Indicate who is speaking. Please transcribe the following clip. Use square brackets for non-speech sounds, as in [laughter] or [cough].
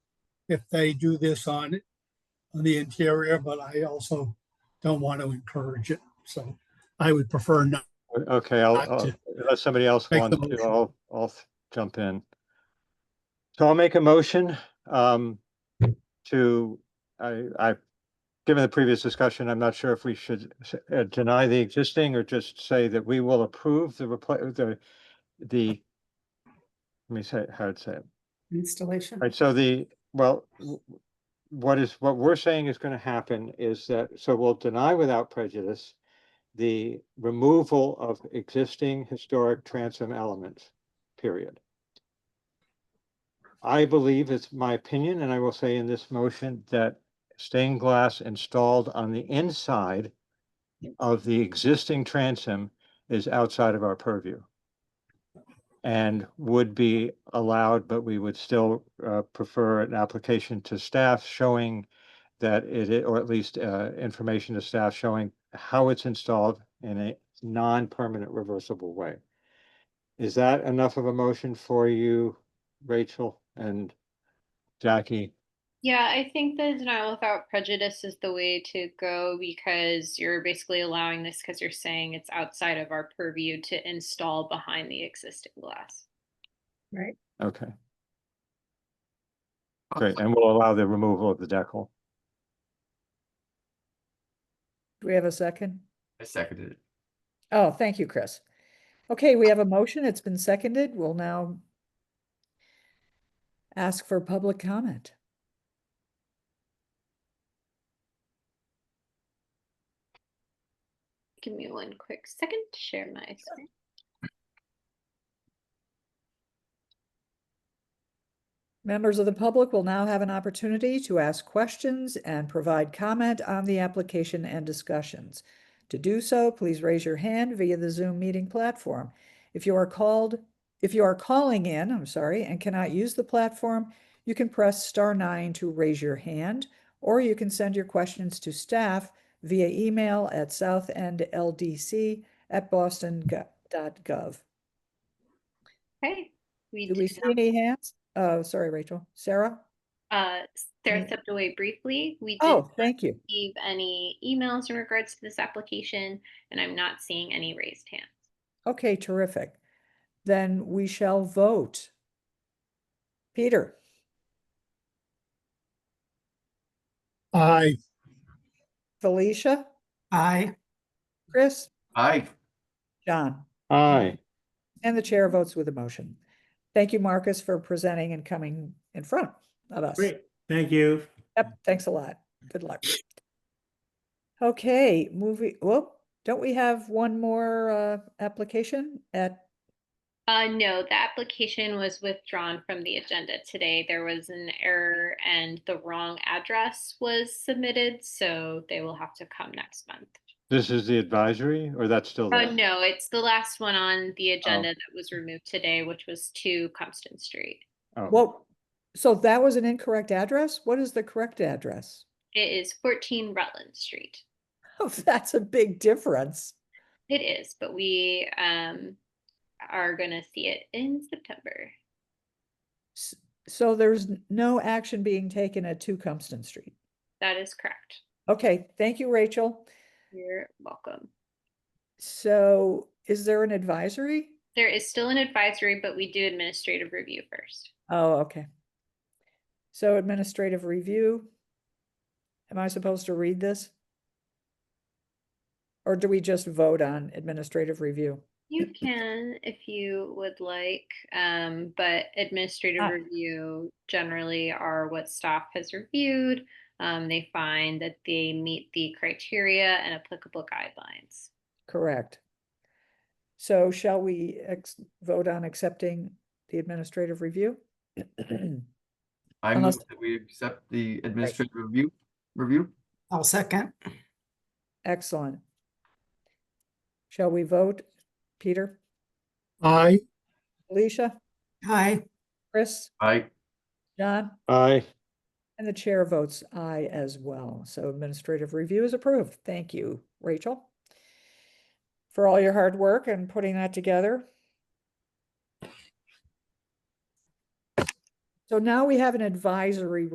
Speaker 1: if they do this on, on the interior, but I also don't want to encourage it. So I would prefer not.
Speaker 2: Okay, I'll,
Speaker 1: Not to-
Speaker 2: I'll- unless somebody else
Speaker 1: Make the
Speaker 2: wants to,
Speaker 1: motion.
Speaker 2: I'll, I'll f- jump in. So I'll make a motion um, to, I, I, given the previous discussion, I'm not sure if we should s- uh, deny the existing or just say that we will approve the repla the, the, let me say, how to say it.
Speaker 3: Installation.
Speaker 2: Right, so the, well, w- w- what is, what we're saying is gonna happen is that, so we'll deny without prejudice the removal of existing historic transom elements, period. I believe it's my opinion, and I will say in this motion, that stained glass installed on the inside of the existing transom is outside of our purview and would be allowed, but we would still uh, prefer an application to staff showing that it, i- or at least uh, information to staff showing how it's installed in a non-permanent reversible way. Is that enough of a motion for you, Rachel and Jackie?
Speaker 4: Yeah, I think the denial without prejudice is the way to go because you're basically allowing this because you're saying it's outside of our purview to install behind the existing glass.
Speaker 2: Okay. Great, and we'll allow the removal of the decal.
Speaker 5: Do we have a second?
Speaker 6: I seconded it.
Speaker 5: Oh, thank you, Chris. Okay, we have a motion. It's been seconded. We'll now ask for public comment.
Speaker 4: Give me one quick second to share my screen.
Speaker 5: Members of the public will now have an opportunity to ask questions and provide comment on the application and discussions. To do so, please raise your hand via the Zoom meeting platform. If you are called, if you are calling in, I'm sorry, and cannot use the platform, you can press star nine to raise your hand, or you can send your questions to staff via email at southendldc@boston.gov.
Speaker 4: Okay. We
Speaker 5: Do we
Speaker 4: did
Speaker 5: see
Speaker 4: not-
Speaker 5: any hands? Oh, sorry, Rachel. Sarah?
Speaker 4: uh, Sarah
Speaker 5: any-
Speaker 4: stepped away briefly. We did
Speaker 5: Oh,
Speaker 4: not
Speaker 5: thank you.
Speaker 4: receive any emails in regards to this application, and I'm not seeing any raised hands.
Speaker 5: Okay, terrific. Then we shall vote. Peter,
Speaker 1: I,
Speaker 5: Felicia,
Speaker 3: Aye.
Speaker 5: Chris,
Speaker 6: Aye.
Speaker 5: John,
Speaker 2: Aye,
Speaker 5: and the chair votes with emotion. Thank you, Marcus, for presenting and coming in front of us.
Speaker 7: Great, thank you.
Speaker 5: Yep, thanks a lot. Good luck. Okay, moving, well, don't we have one more uh application at,
Speaker 4: Uh, no, the application was withdrawn from the agenda today. There was an error and the wrong address was submitted, so they will have to come next month.
Speaker 2: this is the advisory, or that's still
Speaker 4: Oh,
Speaker 2: there?
Speaker 4: no, it's the last one on the agenda that was removed today, which was to Compton Street.
Speaker 2: Oh,
Speaker 5: well, so that was an incorrect address? What is the correct address? [laughs]
Speaker 4: It is fourteen Rutland Street.
Speaker 5: Oh, that's a big difference.
Speaker 4: It is, but we, um, are gonna see it in September.
Speaker 5: S- So there's n- no action being taken at Two Compton Street.
Speaker 4: That is correct.
Speaker 5: Okay, thank you, Rachel.
Speaker 4: You're welcome.
Speaker 5: So is there an advisory?
Speaker 4: There is still an advisory, but we do administrative review first.
Speaker 5: Oh, okay. So administrative review. Am I supposed to read this? Or do we just vote on administrative review?
Speaker 4: You can if you would like, um, but administrative
Speaker 5: Ah.
Speaker 4: review generally are what staff has reviewed. Um, they find that they meet the criteria and applicable guidelines.
Speaker 5: Correct. So shall we ex- vote on accepting the administrative review? [clears throat]
Speaker 6: I move
Speaker 5: Unless-
Speaker 6: that we accept the administrative review, review?
Speaker 3: I'll second.
Speaker 5: Excellent. Shall we vote? Peter,
Speaker 1: I,
Speaker 5: Alicia,
Speaker 3: Aye.
Speaker 5: Chris,
Speaker 6: Aye.
Speaker 5: John,
Speaker 2: Aye.
Speaker 5: and the chair votes aye as well. So administrative review is approved. Thank you, Rachel, for all your hard work and putting that together. So now we have an advisory